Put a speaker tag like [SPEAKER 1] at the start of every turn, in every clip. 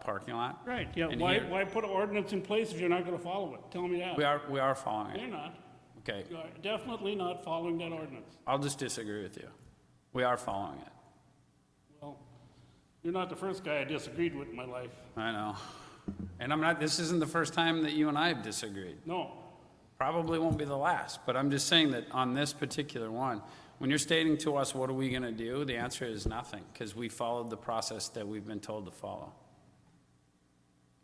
[SPEAKER 1] parking lot.
[SPEAKER 2] Right, yeah,
[SPEAKER 1] And
[SPEAKER 2] why,
[SPEAKER 1] here-
[SPEAKER 2] why put an ordinance in place if you're not gonna follow it? Tell me that.
[SPEAKER 1] We are, we are following
[SPEAKER 2] You're
[SPEAKER 1] it.
[SPEAKER 2] not.
[SPEAKER 1] Okay,
[SPEAKER 2] You are definitely not following that ordinance.
[SPEAKER 1] I'll just disagree with you. We are following it.
[SPEAKER 2] Well, you're not the first guy I disagreed with in my life.
[SPEAKER 1] I know. And I'm not, this isn't the first time that you and I have disagreed.
[SPEAKER 2] No,
[SPEAKER 1] Probably won't be the last, but I'm just saying that on this particular one, when you're stating to us, what are we going to do? The answer is nothing, because we followed the process that we've been told to follow.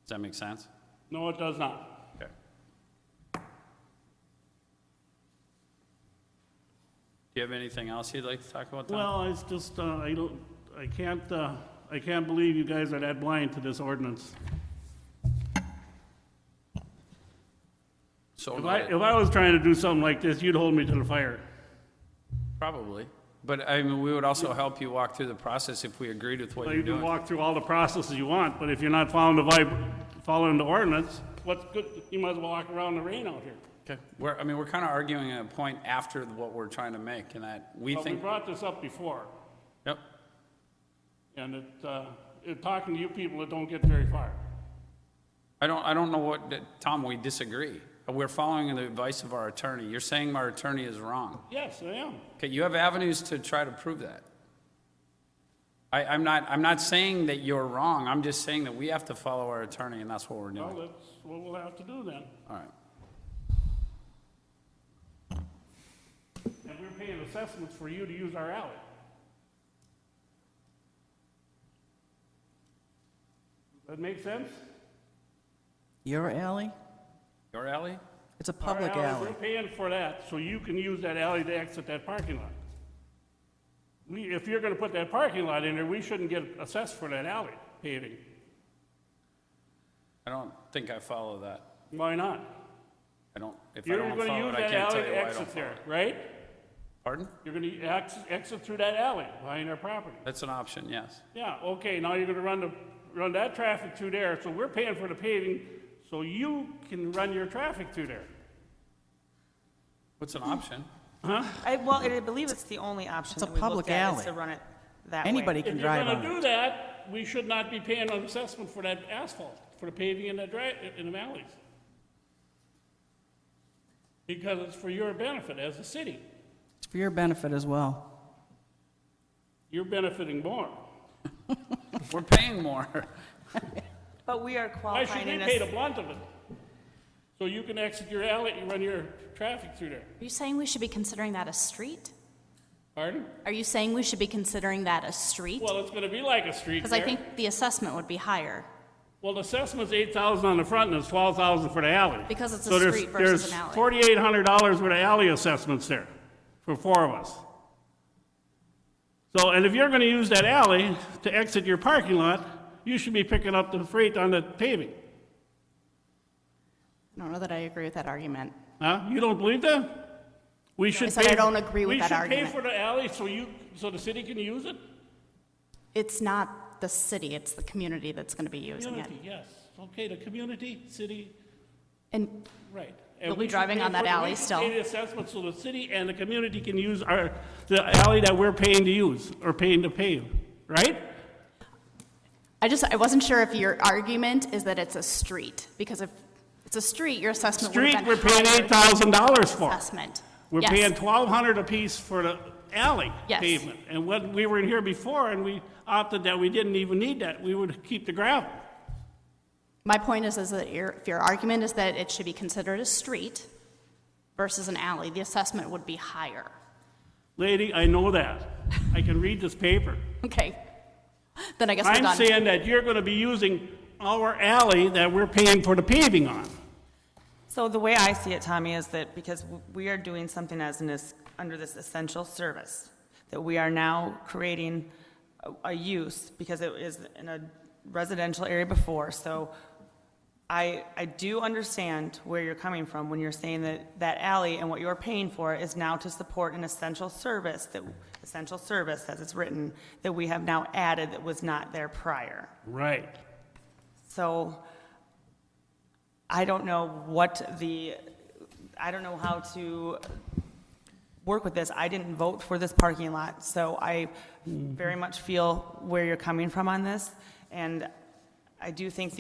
[SPEAKER 1] Does that make sense?
[SPEAKER 2] no, it does not.
[SPEAKER 1] Okay. Do you have anything else you'd like to talk about, Tom?
[SPEAKER 2] Well, it's just, uh, I don't, I can't, uh, I can't believe you guys are that blind to this ordinance.
[SPEAKER 1] So
[SPEAKER 2] If I,
[SPEAKER 1] noted.
[SPEAKER 2] if I was trying to do something like this, you'd hold me to the fire.
[SPEAKER 1] Probably. But I mean, we would also help you walk through the process if we agreed with what
[SPEAKER 2] Well,
[SPEAKER 1] you're
[SPEAKER 2] You can
[SPEAKER 1] doing.
[SPEAKER 2] walk through all the processes you want, but if you're not following the vib, following the ordinance, what's good, you might as well walk around in the rain out here.
[SPEAKER 1] Okay. We're, I mean, we're kind of arguing a point after what we're trying to make and that we
[SPEAKER 2] But we
[SPEAKER 1] think,
[SPEAKER 2] brought this up before,
[SPEAKER 1] yep,
[SPEAKER 2] and it, uh, it, talking to you people, it don't get very far.
[SPEAKER 1] I don't, I don't know what, that- Tom, we disagree. We're following the advice of our attorney. You're saying our attorney is wrong.
[SPEAKER 2] Yes, I am.
[SPEAKER 1] Okay, you have avenues to try to prove that. I, I'm not, I'm not saying that you're wrong. I'm just saying that we have to follow our attorney and that's what we're
[SPEAKER 2] Well,
[SPEAKER 1] doing.
[SPEAKER 2] that's what we'll have to do then.
[SPEAKER 1] All right.
[SPEAKER 2] And we're paying assessments for you to use our alley. That make sense?
[SPEAKER 3] Your alley?
[SPEAKER 1] Your alley?
[SPEAKER 3] It's a
[SPEAKER 2] Our
[SPEAKER 3] public alley.
[SPEAKER 2] We're paying for that, so you can use that alley to exit that parking lot. We, if you're gonna put that parking lot in there, we shouldn't get assessed for that alley paving.
[SPEAKER 1] I don't think I follow that.
[SPEAKER 2] Why not?
[SPEAKER 1] I don't, if I
[SPEAKER 2] You're
[SPEAKER 1] don't
[SPEAKER 2] gonna
[SPEAKER 1] follow
[SPEAKER 2] use
[SPEAKER 1] it, I
[SPEAKER 2] that
[SPEAKER 1] can't
[SPEAKER 2] alley
[SPEAKER 1] tell you
[SPEAKER 2] to
[SPEAKER 1] why I don't
[SPEAKER 2] exit
[SPEAKER 1] follow
[SPEAKER 2] there,
[SPEAKER 1] it.
[SPEAKER 2] right?
[SPEAKER 1] Pardon?
[SPEAKER 2] You're gonna exit, exit through that alley behind our property.
[SPEAKER 1] That's an option, yes.
[SPEAKER 2] Yeah, okay, now you're gonna run the, run that traffic through there, so we're paying for the paving, so you can run your traffic through there.
[SPEAKER 1] What's an option?
[SPEAKER 4] I, well, I believe it's the only option
[SPEAKER 3] It's a
[SPEAKER 4] that we looked
[SPEAKER 3] public
[SPEAKER 4] at, is
[SPEAKER 3] alley.
[SPEAKER 4] to run it that way.
[SPEAKER 3] Anybody
[SPEAKER 2] If
[SPEAKER 3] can
[SPEAKER 2] you're
[SPEAKER 3] drive
[SPEAKER 2] gonna
[SPEAKER 3] on
[SPEAKER 2] do
[SPEAKER 3] it.
[SPEAKER 2] that, we should not be paying an assessment for that asphalt, for the paving in the dri, in the alleys. Because it's for your benefit as a city.
[SPEAKER 3] It's for your benefit as well.
[SPEAKER 2] You're benefiting more.
[SPEAKER 1] We're paying more.
[SPEAKER 4] But we are
[SPEAKER 2] Why should
[SPEAKER 4] qualifying
[SPEAKER 2] we
[SPEAKER 4] in
[SPEAKER 2] pay the
[SPEAKER 4] a,
[SPEAKER 2] blunt of it? So you can exit your alley and run your traffic through there.
[SPEAKER 5] Are you saying we should be considering that a street?
[SPEAKER 2] Pardon?
[SPEAKER 5] Are you saying we should be considering that a street?
[SPEAKER 2] Well, it's gonna be like a street
[SPEAKER 5] Because I
[SPEAKER 2] there.
[SPEAKER 5] think the assessment would be higher.
[SPEAKER 2] Well, the assessment's eight thousand on the front and it's twelve thousand for the alley.
[SPEAKER 5] Because it's a
[SPEAKER 2] So there's-
[SPEAKER 5] street versus an alley.
[SPEAKER 2] There's forty-eight hundred dollars worth of alley assessments there for four of us. So, and if you're gonna use that alley to exit your parking lot, you should be picking up the freight on the paving.
[SPEAKER 6] I don't know that I agree with that argument.
[SPEAKER 2] Huh? You don't believe that? We should
[SPEAKER 6] said I
[SPEAKER 2] pay-
[SPEAKER 6] don't agree with that
[SPEAKER 2] We
[SPEAKER 6] argument.
[SPEAKER 2] should pay for the alley so you, so the city can use it?
[SPEAKER 6] It's not the city, it's the community that's going to be using it.
[SPEAKER 2] Community, yes. Okay, the community, city,
[SPEAKER 6] And
[SPEAKER 2] Right.
[SPEAKER 6] They'll
[SPEAKER 2] And
[SPEAKER 6] be
[SPEAKER 2] we should
[SPEAKER 6] driving
[SPEAKER 2] pay
[SPEAKER 6] on that
[SPEAKER 2] for- we
[SPEAKER 6] alley
[SPEAKER 2] should
[SPEAKER 6] still.
[SPEAKER 2] Pay the assessment so the city and the community can use our, the alley that we're paying to use, or paying to pave, right?
[SPEAKER 6] I just, I wasn't sure if your argument is that it's a street, because if it's a street, your assessment would
[SPEAKER 2] Street,
[SPEAKER 6] have
[SPEAKER 2] we're
[SPEAKER 6] been
[SPEAKER 2] paying
[SPEAKER 6] higher
[SPEAKER 2] eight thousand dollars for.
[SPEAKER 6] assessment.
[SPEAKER 2] We're
[SPEAKER 6] Yes.
[SPEAKER 2] paying twelve hundred apiece for the alley
[SPEAKER 6] Yes.
[SPEAKER 2] pavement. And when, we were in here before, and we opted that we didn't even need that, we would keep the gravel.
[SPEAKER 6] My point is, is that your, if your argument is that it should be considered a street versus an alley, the assessment would be higher.
[SPEAKER 2] Lady, I know that. I can read this paper.
[SPEAKER 6] Okay, then I guess we're
[SPEAKER 2] I'm
[SPEAKER 6] done.
[SPEAKER 2] saying that you're gonna be using our alley that we're paying for the paving on.
[SPEAKER 4] So the way I see it, Tommy, is that because we are doing something as an, es- under this essential service, that we are now creating a, a use, because it is in a residential area before, so I, I do understand where you're coming from when you're saying that that alley and what you're paying for is now to support an essential service, that, essential service, as it's written, that we have now added that was not there prior.
[SPEAKER 2] Right.
[SPEAKER 4] So I don't know what the, I don't know how to work with this. I didn't vote for this parking lot, so I very much feel where you're coming from on this. And I do think